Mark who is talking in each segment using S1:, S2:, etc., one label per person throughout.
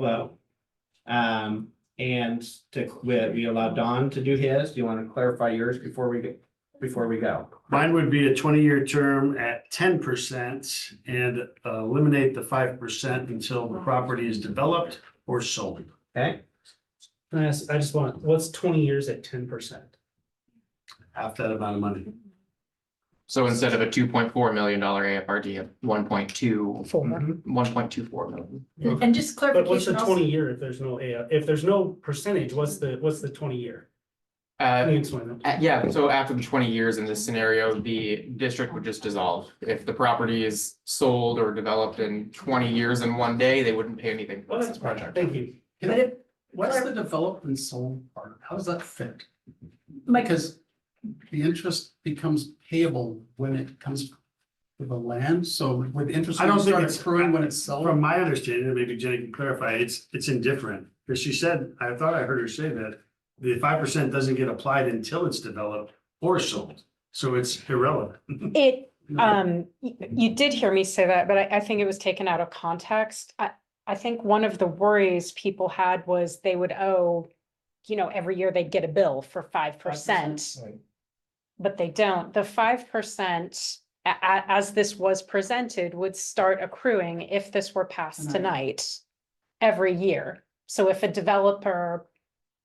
S1: vote. Um, and to, we, we allow Don to do his. Do you want to clarify yours before we get, before we go?
S2: Mine would be a twenty-year term at ten percent and uh, eliminate the five percent until the property is developed or sold.
S1: Okay,
S3: I just, I just want, what's twenty years at ten percent?
S2: Half that amount of money.
S4: So instead of a two point four million dollar AFRD, a one point two, one point two four million.
S5: And and just
S3: But what's the
S5: clarification also,
S3: twenty year if there's no, A- if there's no percentage, what's the, what's the twenty year? Can
S4: Uh,
S3: you explain that?
S4: uh, yeah, so after the twenty years in this scenario, the district would just dissolve. If the property is sold or developed in twenty years in one day, they wouldn't pay anything for
S3: Well,
S4: this
S3: that's fine.
S4: project.
S3: Thank you.
S5: but if,
S6: What's the development sold part? How does that fit?
S5: Mike,
S6: Because the interest becomes payable when it comes to the land, so would interest
S2: I don't think
S6: start
S2: it's-
S6: accruing when it's sold?
S2: From my understanding, and maybe Jenny can clarify, it's, it's indifferent. Because she said, I thought I heard her say that the five percent doesn't get applied until it's developed or sold. So it's irrelevant.
S7: It, um, y- you did hear me say that, but I, I think it was taken out of context. I, I think one of the worries people had was they would owe, you know, every year they'd get a bill for five percent. But they don't. The five percent, a- a- as this was presented, would start accruing if this were passed
S6: Tonight.
S7: tonight every year. So if a developer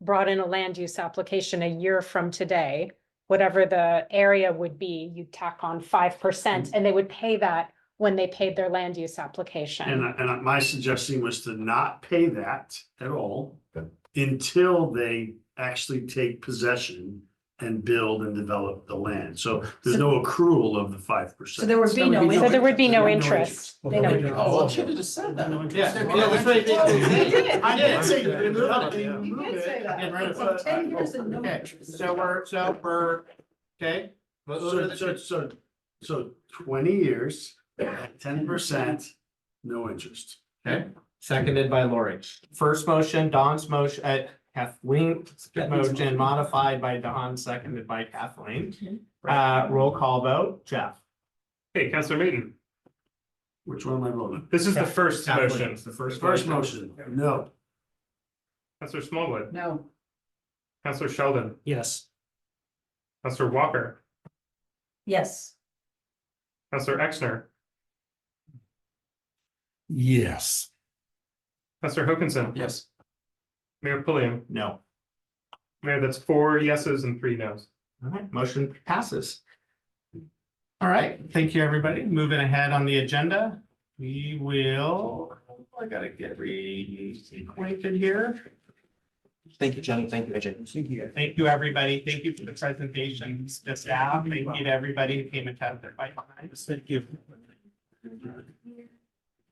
S7: brought in a land use application a year from today, whatever the area would be, you'd tack on five
S2: Mm.
S7: percent and they would pay that when they paid their land use
S2: And,
S7: application.
S2: I- and my suggestion was to not pay that at all until they actually take possession and build and develop the land. So there's no accrual of the five
S5: so
S2: percent.
S5: there would be no.
S7: So there would be no
S2: There would be no
S7: interest.
S6: Oh,
S5: They know.
S6: well, I should have just said that.
S1: I did
S6: say
S1: that.
S5: You did say that.
S6: Get rid of
S5: So
S1: Oh,
S6: it.
S5: Ten years and no interest.
S6: uh, So we're, so we're, okay?
S2: So, so, so, so twenty years, ten percent, no interest.
S1: seconded by Lori. First motion, Don's motion, uh, Kathleen's motion modified by Don, seconded by Kathleen. Uh, roll call vote, Jeff.
S8: Hey, Counselor Maiden,
S2: Which one am I voting?
S8: this is the first
S1: Kathleen,
S8: motion.
S1: it's The first.
S2: First motion, no.
S8: Counselor Smallwood,
S5: No,
S8: Counselor Sheldon,
S3: Yes.
S8: Counselor Walker,
S5: yes,
S8: Counselor Exner,
S9: Yes.
S8: Counselor Hokinson,
S6: Yes.
S8: Mayor Pulliam.
S1: No.
S8: Mayor, that's four yeses and three nos.
S1: All right, motion passes. All right, thank you, everybody. Moving ahead on the agenda, we will, I gotta get reacquainted here.
S4: Thank you, Jenny. Thank you, Ajay.
S1: Thank you. Thank you, everybody. Thank you for the presentations, the staff. Thank you to everybody who came and tapped their bike behinds. Thank you.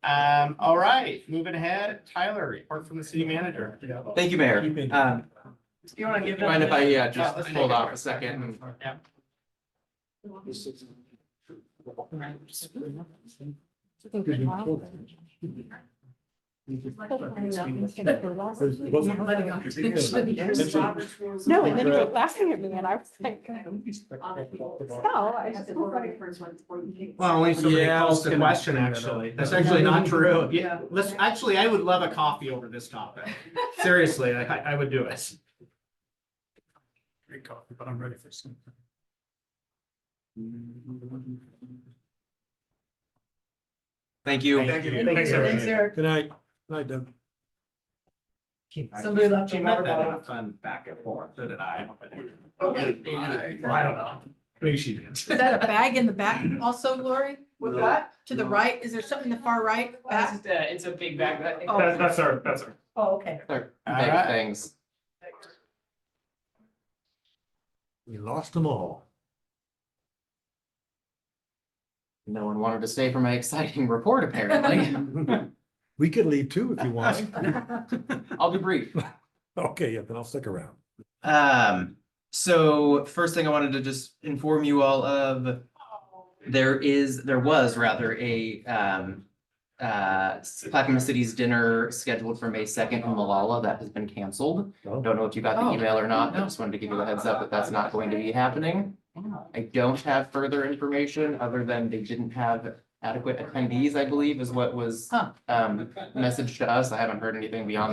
S1: Um, all right, moving ahead, Tyler, report from the city manager.
S4: Thank you, Mayor. Um,
S6: You wanna give
S4: mind if I, yeah, just
S1: Yeah, let's
S4: hold
S1: take it.
S4: off a second and
S1: Yeah.
S7: No, and then you were laughing at me and I was like, no, I just.
S1: Well, only somebody
S4: Yeah, I
S1: calls
S4: was
S1: the
S4: gonna
S1: question,
S4: bring that
S1: actually.
S4: up.
S1: That's actually not true. Yeah, let's, actually, I would love a coffee over this topic. Seriously, I, I- I would do it.
S6: Great coffee, but I'm ready for some.
S4: thank you.
S8: Thanks,
S5: thanks,
S8: everyone.
S5: Eric.
S9: Good night. Night, Doug.
S5: Somebody left a
S1: She
S5: water
S1: meant that
S5: bottle.
S1: in a fun back and forth, so did I.
S6: Okay.
S1: Well, I don't know. Maybe she did.
S5: Is that a bag in the back also, Lori? With
S2: No.
S5: what? To the right? Is there something in the far right? back?
S6: It's a big bag, but.
S5: Oh.
S8: That- That's our, that's our.
S5: Oh, okay.
S4: Thanks,
S1: right.
S4: thanks.
S9: We lost them all.
S4: No one wanted to stay for my exciting report, apparently.
S9: We could leave too if you want.
S4: I'll be brief.
S9: Okay, yeah, then I'll stick around.
S4: Um, so first thing I wanted to just inform you all of, there is, there was rather a, um, uh, Clackamas City's dinner scheduled for May second in Malala that has been canceled.
S9: Oh.
S4: Don't know if you got
S5: Oh.
S4: the email or not. I just wanted to give you a heads up that that's not going to be happening. I don't have further information other than they didn't have adequate attendees, I believe, is what was
S5: Huh.
S4: um messaged to us. I haven't heard anything beyond